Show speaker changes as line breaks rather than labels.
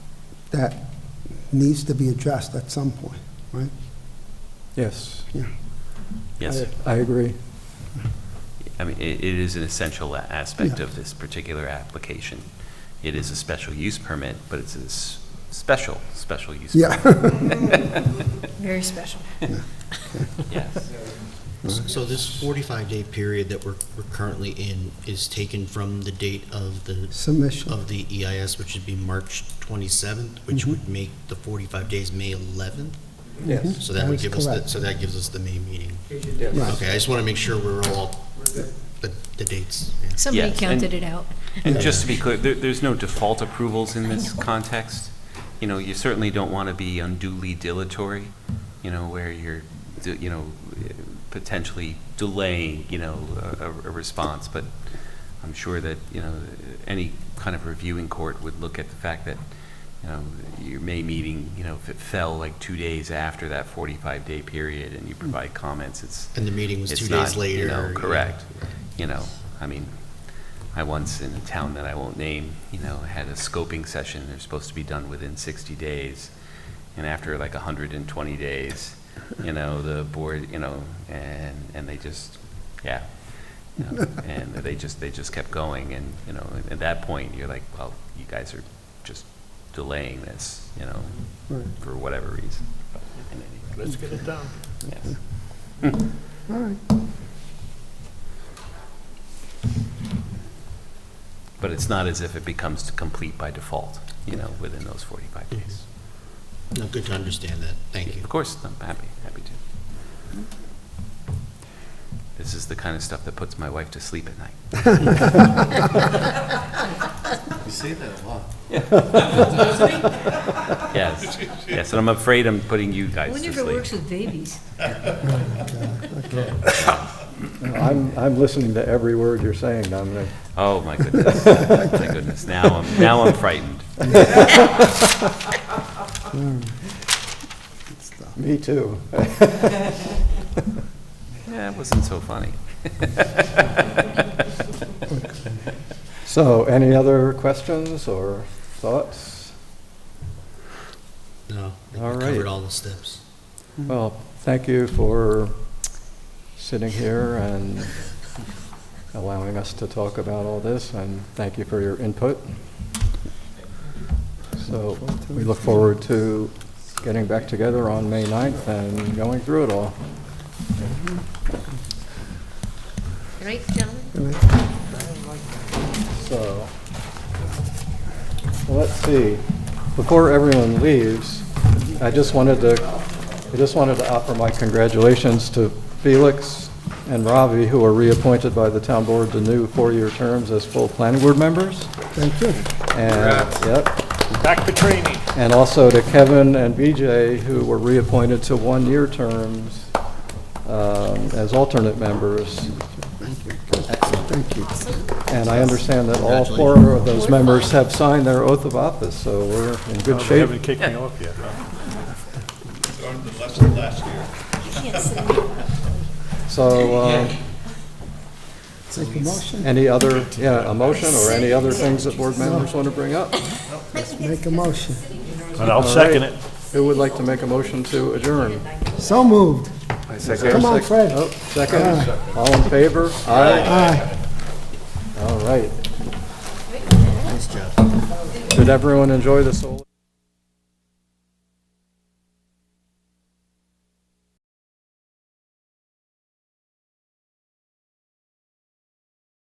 that needs to be addressed at some point, right?
Yes,
Yeah.
Yes,
I agree.
I mean, i it is an essential a- aspect
Yeah.
of this particular application. It is a special use permit, but it's a s- special, special use.
Yeah,
Very special.
permit. Yes,
So this 45-day period that we're we're currently in is taken from the date of the,
submission,
of the EIS, which would be March 27th, which would make the 45 days May 11th?
Yes.
So that would
That is
give us, the-
correct.
so that gives us the May meeting.
Right.
Okay, I just want to make sure we're all, the the dates. yeah.
Somebody
Yes,
counted
and-
it out.
And just to be clear, there, there's no default approvals in this context. You know, you certainly don't want to be unduly dilatory, you know, where you're, d- you know, potentially delaying, you know, a, a a response. But I'm sure that, you know, any kind of reviewing court would look at the fact that, you know, your May meeting, you know, if it fell like two days after that 45-day period and you provide comments, it's,
And the meeting was two
it's not,
days later.
you know,
yeah.
correct. You know, I mean, I once, in a town that I won't name, you know, had a scoping session, they're supposed to be done within 60 days, and after like 120 days, you know, the board, you know, and, and they just, yeah. you know, And they just, they just kept going, and, you know, at that point, you're like, well, you guys are just delaying this, you know,
Right.
for whatever reason. Let's get it done. Yes.
all right.
But it's not as if it becomes complete by default, you know, within those 45 days.
No, good to understand that. Thank you.
Of course, I'm happy, happy to. This is the kind of stuff that puts my wife to sleep at night.
Oh. Mm-hmm.
You say that a lot.
Yes, yes, and I'm afraid I'm putting you
I
guys
wonder
to
if it works
sleep.
with babies.
No, I'm, I'm listening to every word you're saying, Dominic.
Oh, my goodness, my goodness, now I'm, now I'm frightened.
Me too.
Yeah, it wasn't so funny.
So, any other questions or thoughts?
No, I think
All
we
right.
covered all the steps.
Well, thank you for sitting here and allowing us to talk about all this, and thank you for your input. So, we look forward to getting back together on May 9th and going through it all.
Right, gentlemen?
So, let's see, before everyone leaves, I just wanted to, I just wanted to offer my congratulations to Felix and Ravi, who are reappointed by the town board to new four-year terms as full planning board members.
Thank you.
And, yep,
Back to training.
and also to Kevin and BJ, who were reappointed to one-year terms um, as alternate members.
Thank you.
And I understand that all four of those members have signed their oath of office, so we're in good
They
shape.
haven't kicked me off yet, huh?
So, uh,
Take a motion,
any other, yeah, a motion or any other things that board members want to bring up?
make a motion.
And I'll second it.
Who would like to make a motion to adjourn?
So moved.
Come
on, Fred.
Second, all in favor? Aye. All right. Did everyone enjoy the solar?